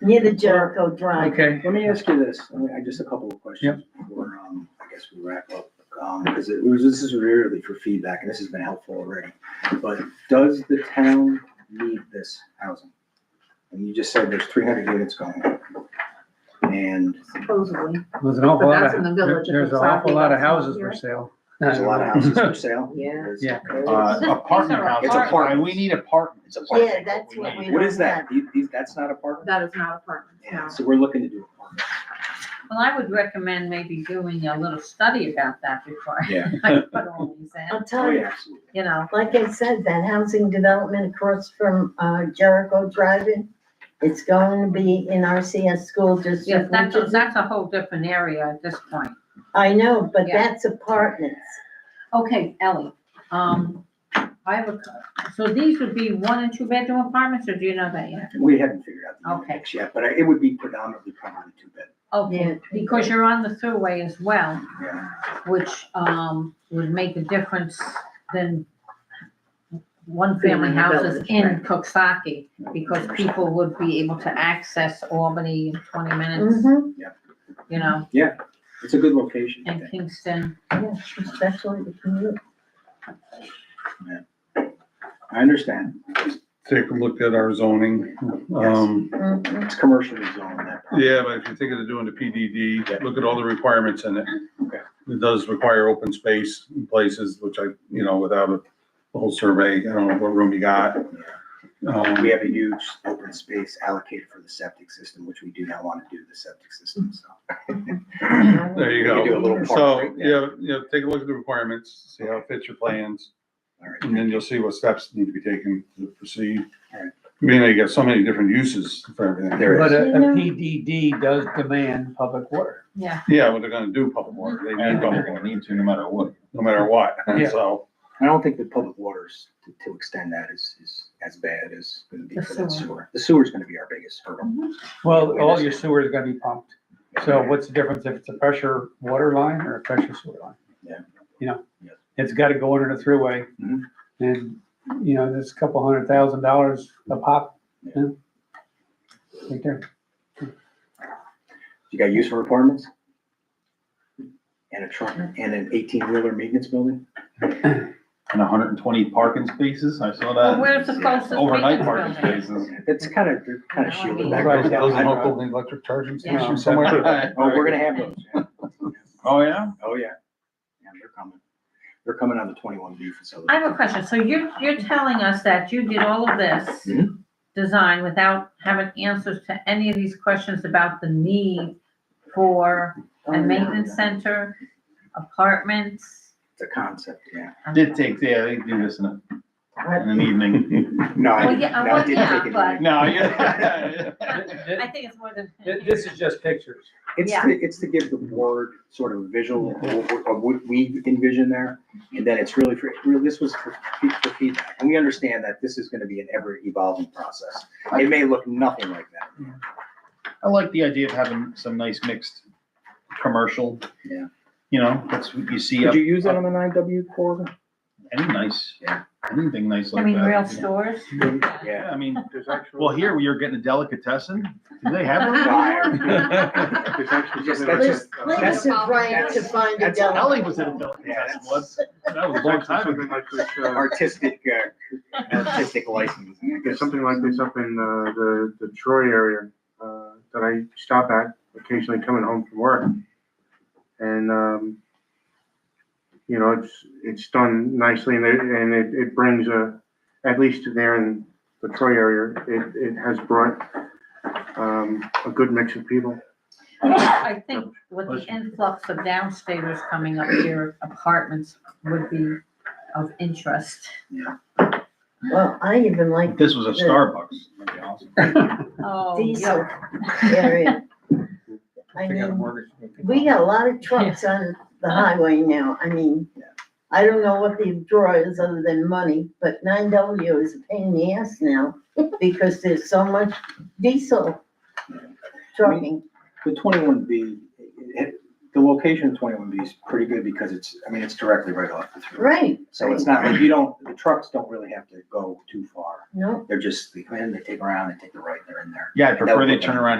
near the Jericho Drive. Okay, Let me ask you this, I mean, I- just a couple of questions. Before, um, I guess we wrap up, um, because it was, this is really for feedback, and this has been helpful already. But does the town need this housing? And you just said there's three hundred units going. up. And Supposedly, there's an awful But lot that's in the of, village, if there's it's an awful not- lot of it's not houses for here. sale. there's a lot of houses for sale. yeah. There's- Yeah. Uh, apartment These are houses. It's apartments. We need apartments. It's apartment. Yeah, that's what we. What don't is that? have. These- these- that's not apartment? That is not apartments, Yeah, no. so we're looking to do apartments. Well, I would recommend maybe doing a little study about that before Yeah. I put all these in, I'll Oh, tell you, yeah, absolutely. you know. like I said, that housing development across from uh, Jericho Drive-In, it's going to be in RCS school Yes, district, that's, which a- is, that's a whole different area at this point. I know, but Yeah. that's apartments. Okay, Ellie, um, I have a, co- so these would be one and two bedroom apartments, or do you know that yet? We haven't figured out the Okay. mix yet, but it would be predominantly probably two bed. Yeah. Okay, because you're on the thruway as well, Yeah. which, um, would make a difference than one-family Being in the houses village, in right. Cooksaki, because people would be able to access Albany in twenty minutes, Mhm, you know, It's a good location. I and think. Kingston. yeah, especially the commute. I understand. take a look at our zoning. Um, Mhm. It's commercially zoned, that property. yeah, but if you think of doing the PDD, look at all the requirements in it. Okay. It does require open space in places, which I, you know, without a whole survey, I don't know what room you got. We Um, have a huge open space allocated for the septic system, which we do not want to do the septic system, so. there you We could do a go. little park So, right there. yeah, yeah, take a look at the requirements, see how it fits your plans, All right. and then you'll see what steps need to be taken to proceed. All right. I mean, you got so many different uses for everything. There But a, You a know- PDD does demand public water. Yeah, Yeah, well, they're gonna do public water, they need And public don't water, need to, no matter what. no matter what, Yeah. so. I don't think the public waters, to- to extend that is, is as bad as going to be The for that sewer. Mm-hmm. sewer. The sewer's going to be our biggest hurdle. Well, all your sewer is gonna be pumped. So what's the difference if it's a pressure water line or a pressure sewer line? Yeah. You know, Yeah. it's gotta go under the thruway. Mhm. And, you know, there's a couple hundred thousand dollars a pop. you know? Right there. You got use for apartments? And a truck, and an eighteen wheeler maintenance building? And hundred and twenty parking spaces, I saw well, that. where's the closest Uh, Overnight maintenance parking building? spaces. That's kind of, kind of shielded back. Right, that Those was I are don't- local electric charging Yeah. stations somewhere. Oh, we're gonna have those. yeah. Oh, yeah? Oh, yeah. Yeah, they're coming. They're coming on the twenty-one B facility. I have a question. So you're, you're telling us that you did all of this Mm-hmm. design without having answers to any of these questions about the need for Oh, a maintenance center, apartments? It's a concept, yeah. um, Did take, yeah, they do this in, a- in an evening. No, I Well, didn't, yeah, no, I well, didn't yeah, take it. but- away. No, Oh, yeah. I think it's more than. Th- This is just pictures. It's, yeah. to- it's to give the board sort of a visual of what- of what we envision there. And then it's really for, really, this was for fe- for feedback. And we understand that this is gonna be an ever-evolving process. It may look nothing like that. I like the idea of having some nice mixed commercial. Yeah. You know, that's what you see up, Could you use that on the nine W corridor? any nice, Yeah. anything nice I like that. mean, real you know. stores? Yeah. Yeah, I mean, well, here we are getting a delicatessen. Do they have one? Fire. Just- that's Liz, just- Liz that's- is right to that's- find a that's deli. Ellie was at a delicatessen once. That was a long Actually, time ago. Something like this, uh, Artistic, uh, artistic license. I guess. there's something like this up in, uh, the, the Troy area, uh, that I stop at occasionally coming home from work. And, um, you know, it's, it's done nicely and it, and it, it brings a, at least there in the Troy area, it, it has brought, um, a good mix of people. I think with the influx of downstairs coming up here, apartments would be of interest. Well, I even like If This was a Starbucks. that'd be awesome. Oh, diesel area. I They got a mean, mortgage. we got a lot of trucks on the highway now. I mean, I don't know what the draw is other than money, but nine W is a pain in the ass now because there's so much diesel trucking. The twenty-one B, it, the location of twenty-one B is pretty good because it's, I mean, it's directly right off the through. Right, So it's not, like you don't, the trucks don't really have to go too far. no, They're just, they come in, they take around, they take the right, they're in there. Yeah, I prefer would they be- turn around